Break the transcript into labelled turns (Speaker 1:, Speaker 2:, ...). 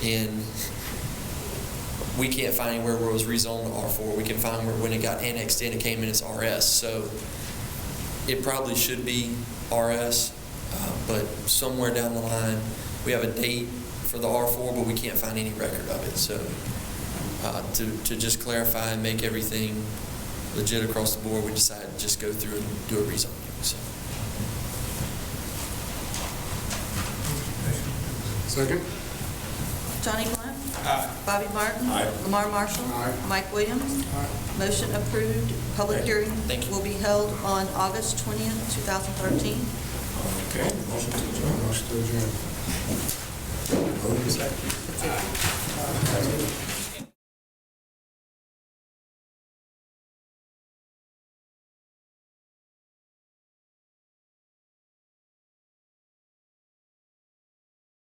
Speaker 1: And we can't find anywhere where it was rezoned to R4. We can find where, when it got annexed in, it came in as RS. So it probably should be RS, uh, but somewhere down the line, we have a date for the R4, but we can't find any record of it. So uh, to, to just clarify and make everything legit across the board, we decided to just go through and do a rezoning, so.
Speaker 2: Second?
Speaker 3: Johnny Blunt.
Speaker 2: Aye.
Speaker 3: Bobby Martin.
Speaker 2: Aye.
Speaker 3: Lamar Marshall.
Speaker 2: Aye.
Speaker 3: Mike Williams.
Speaker 2: Aye.
Speaker 3: Motion approved. Public
Speaker 1: Aye.
Speaker 3: hearing
Speaker 1: Thank you.
Speaker 3: will be held on August 20th, 2013.
Speaker 2: Okay. Motion to adjourn. Motion to adjourn. Second.